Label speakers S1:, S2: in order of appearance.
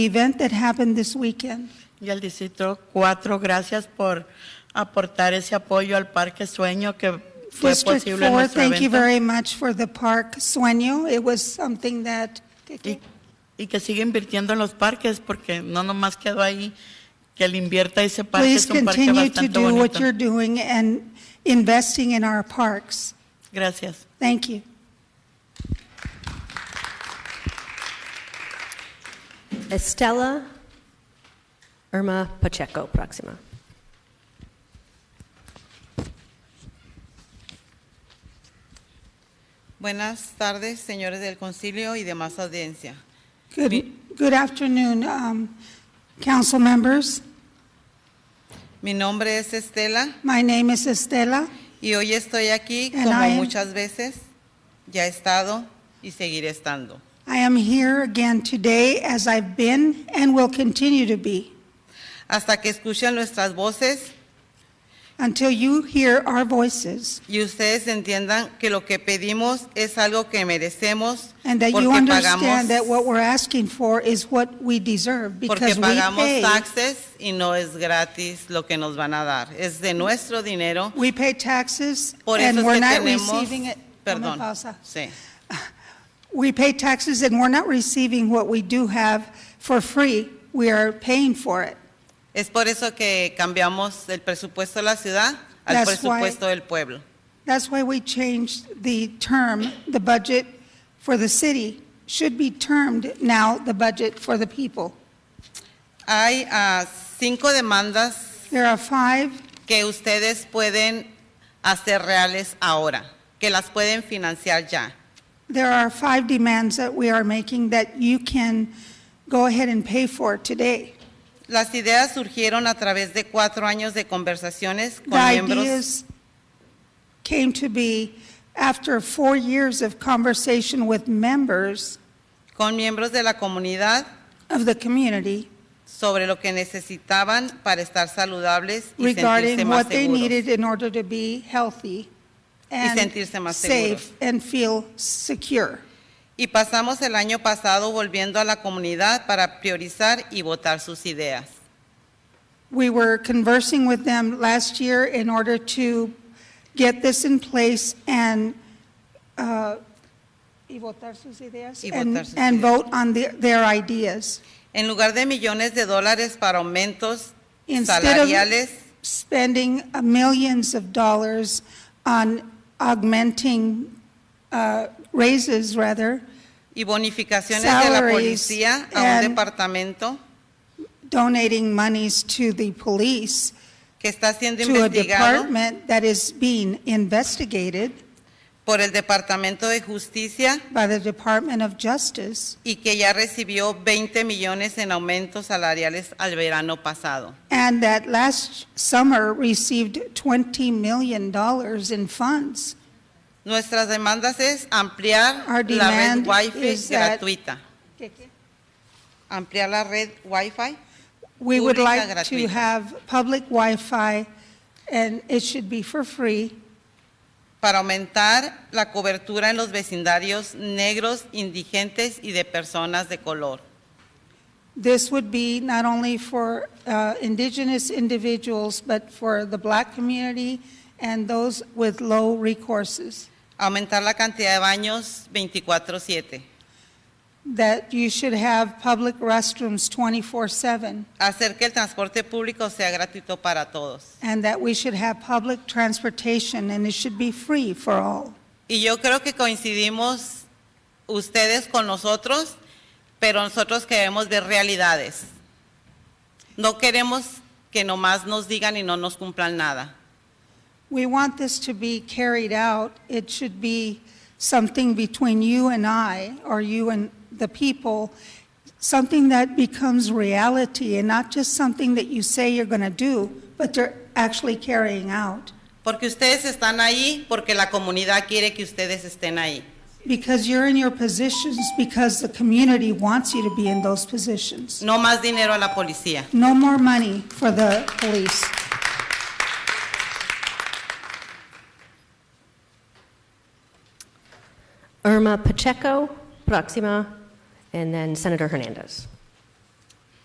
S1: event that happened this weekend.
S2: Y al Distrito 4, gracias por aportar ese apoyo al Parque Sueño que fue
S1: District
S2: posible
S1: 4,
S2: en nuestro
S1: thank you
S2: evento
S1: very much for the park sueño. It was something that,
S2: y, y que sigue invirtiendo en los parques porque no nomás quedó ahí que le invierta ese parque,
S1: please
S2: es un parque
S1: continue to
S2: bastante
S1: do what
S2: bonito.
S1: you're doing and investing in our parks.
S2: Gracias.
S1: Thank you.
S3: Estela Irma Pacheco Proxima.
S4: Buenas tardes, señores del concilio y demás audiencia.
S1: Good, good afternoon, um, council members.
S4: Mi nombre es Estela
S1: My name is Estela,
S4: y hoy estoy aquí
S1: And
S4: como
S1: I am-
S4: muchas veces ya he estado y seguiré estando.
S1: I am here again today as I've been and will continue to be
S4: Hasta que escuchen nuestras voces
S1: until you hear our voices
S4: y ustedes entiendan que lo que pedimos es algo que merecemos
S1: and that you
S4: porque pagamos,
S1: understand that what we're asking for is what we deserve
S4: porque
S1: because we
S4: pagamos
S1: pay.
S4: taxes y no es gratis lo que nos van a dar. Es de nuestro dinero.
S1: We pay taxes
S4: Por eso
S1: and
S4: es
S1: we're
S4: que
S1: not
S4: tenemos,
S1: receiving it. Dame
S4: perdón,
S1: pausa.
S4: sí.
S1: We pay taxes and we're not receiving what we do have for free. We are paying for it.
S4: Es por eso que cambiamos el presupuesto de la ciudad al
S1: That's
S4: presupuesto del pueblo.
S1: That's why we changed the term, the budget for the city should be termed now the budget for the people.
S4: Hay ah, cinco demandas
S1: There are five
S4: que ustedes pueden hacer reales ahora, que las pueden financiar ya.
S1: There are five demands that we are making that you can go ahead and pay for today.
S4: Las ideas surgieron a través de cuatro años de conversaciones con
S1: The
S4: miembros
S1: ideas came to be after four years of conversation with members
S4: con miembros de la comunidad
S1: of the community
S4: sobre lo que necesitaban para estar saludables y sentirse
S1: regarding
S4: más
S1: what they
S4: seguros.
S1: needed in order to be healthy and
S4: sentirse más
S1: safe
S4: seguros.
S1: and feel secure.
S4: Y pasamos el año pasado volviendo a la comunidad para priorizar y votar sus ideas.
S1: We were conversing with them last year in order to get this in place and, uh, y votar sus ideas,
S4: Y
S1: and-
S4: votar sus
S1: and
S4: ideas.
S1: vote on the- their ideas.
S4: En lugar de millones de dólares para aumentos
S1: Instead
S4: salariales,
S1: of spending uh, millions of dollars on augmenting, uh, raises rather,
S4: y bonificaciones de la
S1: Salaries
S4: policía a un
S1: and-
S4: departamento
S1: donating monies to the police,
S4: que está siendo
S1: to a
S4: investigado
S1: department that is being investigated
S4: por el Departamento de Justicia
S1: by the Department of Justice.
S4: y que ya recibió 20 millones en aumentos salariales al verano pasado.
S1: And that last summer received $20 million in funds.
S4: Nuestras demandas es
S1: Our
S4: ampliar la red
S1: demand is
S4: Wi-Fi
S1: that-
S4: gratuita, ampliar la red Wi-Fi
S1: We would
S4: Pública
S1: like to
S4: gratuita.
S1: have public Wi-Fi, and it should be for free,
S4: para aumentar la cobertura en los vecindarios negros, indigentes y de personas de color.
S1: This would be not only for uh, indigenous individuals, but for the black community and those with low recourses,
S4: Aumentar la cantidad de baños 24/7.
S1: that you should have public restrooms 24/7,
S4: Hacer que el transporte público sea gratuito para todos.
S1: and that we should have public transportation, and it should be free for all.
S4: Y yo creo que coincidimos ustedes con nosotros, pero nosotros queremos ver realidades. No queremos que nomás nos digan y no nos cumplan nada.
S1: We want this to be carried out. It should be something between you and I, or you and the people, something that becomes reality and not just something that you say you're going to do, but they're actually carrying out.
S4: Porque ustedes están ahí porque la comunidad quiere que ustedes estén ahí.
S1: Because you're in your positions, because the community wants you to be in those positions.
S4: No más dinero a la policía.
S1: No more money for the police.
S3: Irma Pacheco Proxima, and then Senator Hernandez.